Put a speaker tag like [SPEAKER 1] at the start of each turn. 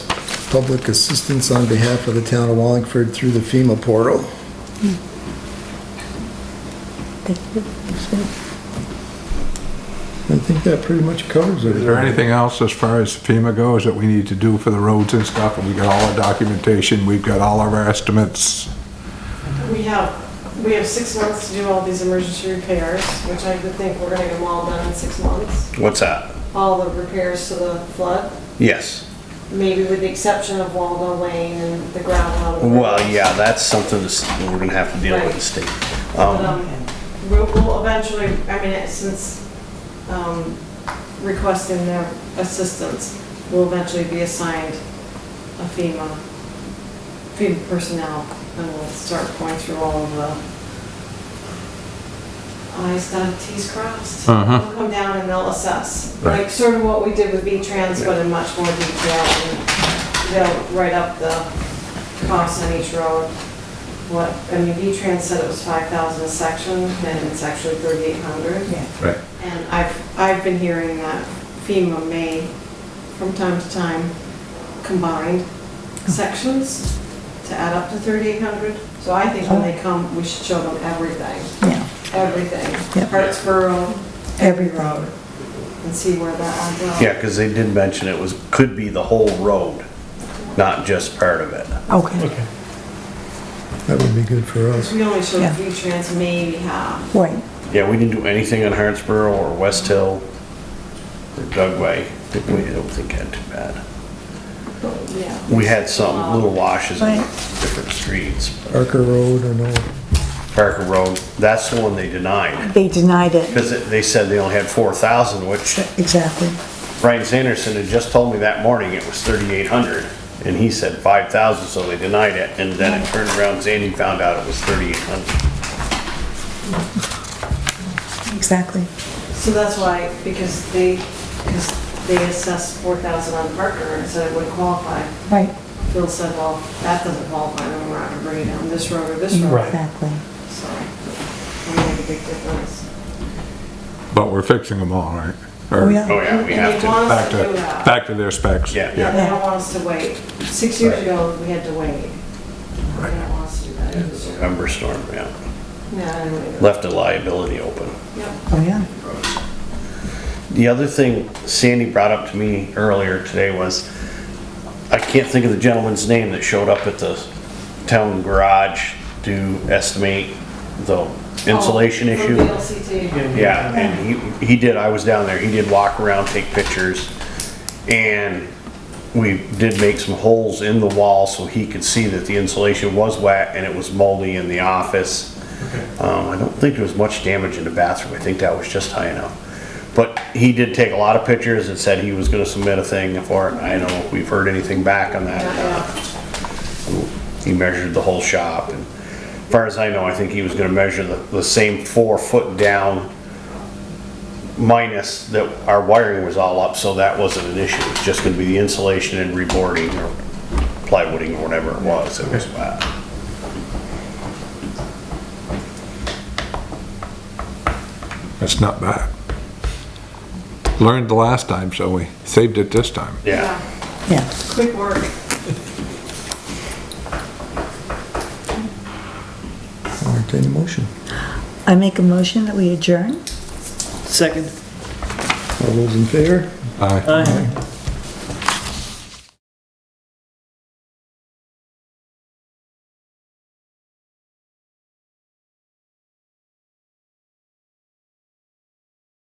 [SPEAKER 1] public assistance on behalf of the town of Wallingford through the FEMA portal.
[SPEAKER 2] Thank you.
[SPEAKER 1] I think that pretty much covers it.
[SPEAKER 3] Is there anything else as far as FEMA goes that we need to do for the roads and stuff? We've got all our documentation, we've got all of our estimates.
[SPEAKER 4] We have, we have six months to do all these emergency repairs, which I would think we're gonna get them all done in six months.
[SPEAKER 5] What's that?
[SPEAKER 4] All the repairs to the flood,
[SPEAKER 5] Yes.
[SPEAKER 4] maybe with the exception of Waldo Lane and the gravel. out of the
[SPEAKER 5] Well,
[SPEAKER 4] roads.
[SPEAKER 5] yeah, um, that's something that's- we're gonna have to deal with the state.
[SPEAKER 4] But,
[SPEAKER 5] Um,
[SPEAKER 4] um, we'll we'll eventually, I mean, since, um, requesting their assistance, will eventually be assigned a FEMA, FEMA personnel, and we'll start going through all of the i's dotted, t's crossed.
[SPEAKER 3] Uh-huh.
[SPEAKER 4] They'll come down and they'll assess,
[SPEAKER 3] Right.
[SPEAKER 4] like sort of what we did with V-Trans, but in much more detail. and They'll write up the costs on each road, what, I mean, V-Trans said it was five thousand a section, and it's actually thirty-eight hundred.
[SPEAKER 3] Right.
[SPEAKER 4] And I've, I've been hearing that FEMA may, from time to time, combine sections to add up to thirty-eight hundred. So I think when they come, we should show them everything,
[SPEAKER 2] Yeah,
[SPEAKER 4] everything,
[SPEAKER 2] Yep.
[SPEAKER 4] Hartsboro,
[SPEAKER 2] every road.
[SPEAKER 4] and see where that adds up.
[SPEAKER 5] Yeah, because they did mention it was, could be the whole road, not just part of it.
[SPEAKER 2] Okay,
[SPEAKER 1] That would be good for us.
[SPEAKER 4] We only showed
[SPEAKER 2] Yeah.
[SPEAKER 4] V-Trans maybe half.
[SPEAKER 2] wait,
[SPEAKER 5] Yeah, we didn't do anything on Hartsboro or West Hill or Dugway. We don't think had too bad.
[SPEAKER 4] Yeah.
[SPEAKER 5] We had some little washes on
[SPEAKER 2] Right.
[SPEAKER 5] different streets.
[SPEAKER 1] Parker Road or no?
[SPEAKER 5] Parker Road, that's the one they denied.
[SPEAKER 2] they denied it,
[SPEAKER 5] Because they said they only had four thousand, which
[SPEAKER 2] exactly.
[SPEAKER 5] Brian Sanderson had just told me that morning it was thirty-eight hundred. And he said five thousand, so they denied it. And then it turned around, Sandy found out it was thirty-eight hundred.
[SPEAKER 2] Exactly.
[SPEAKER 4] So that's why, because they, because they assessed four thousand on Parker and said it wouldn't qualify.
[SPEAKER 2] Right,
[SPEAKER 4] Phil said, well, that doesn't qualify, then we're not gonna bring it down this road or this road.
[SPEAKER 2] exactly.
[SPEAKER 4] So, it'll make a big difference.
[SPEAKER 3] But we're fixing them all, right?
[SPEAKER 2] Oh,
[SPEAKER 3] Or
[SPEAKER 2] yeah,
[SPEAKER 5] Oh, yeah, we have
[SPEAKER 4] And they want
[SPEAKER 5] to.
[SPEAKER 3] Back
[SPEAKER 4] us to
[SPEAKER 3] to,
[SPEAKER 4] do that.
[SPEAKER 3] back to their specs.
[SPEAKER 5] Yeah.
[SPEAKER 4] Yeah, they don't want us to wait. Six years ago, we had to wait. They don't want us to do that. this year.
[SPEAKER 5] November storm, yeah.
[SPEAKER 4] No, I don't know.
[SPEAKER 5] Left a liability open.
[SPEAKER 4] Yep.
[SPEAKER 2] oh, yeah.
[SPEAKER 5] The other thing Sandy brought up to me earlier today was, I can't think of the gentleman's name that showed up at the town garage to estimate the insulation
[SPEAKER 4] Oh,
[SPEAKER 5] issue.
[SPEAKER 4] From VLCT.
[SPEAKER 5] Yeah, and he, he did, I was down there, he did walk around, take pictures, and we did make some holes in the wall so he could see that the insulation was wet and it was moldy in the office. Um, I don't think there was much damage in the bathroom, I think that was just high enough. But he did take a lot of pictures and said he was gonna submit a thing for it, I don't know if we've heard anything back on that. He measured the whole shop, and as far as I know, I think he was gonna measure the, the same four foot down minus that our wiring was all up, so that wasn't an issue. It's just gonna be the insulation and reboarding or plywooding or whatever it was that was bad.
[SPEAKER 3] That's not bad. Learned the last time, so we saved it this time.
[SPEAKER 5] Yeah,
[SPEAKER 2] Yeah,
[SPEAKER 4] Quick work.
[SPEAKER 1] Entertain a motion.
[SPEAKER 2] I make a motion that we adjourn?
[SPEAKER 6] Second.
[SPEAKER 1] All those in favor?
[SPEAKER 3] Aye.
[SPEAKER 6] Aye.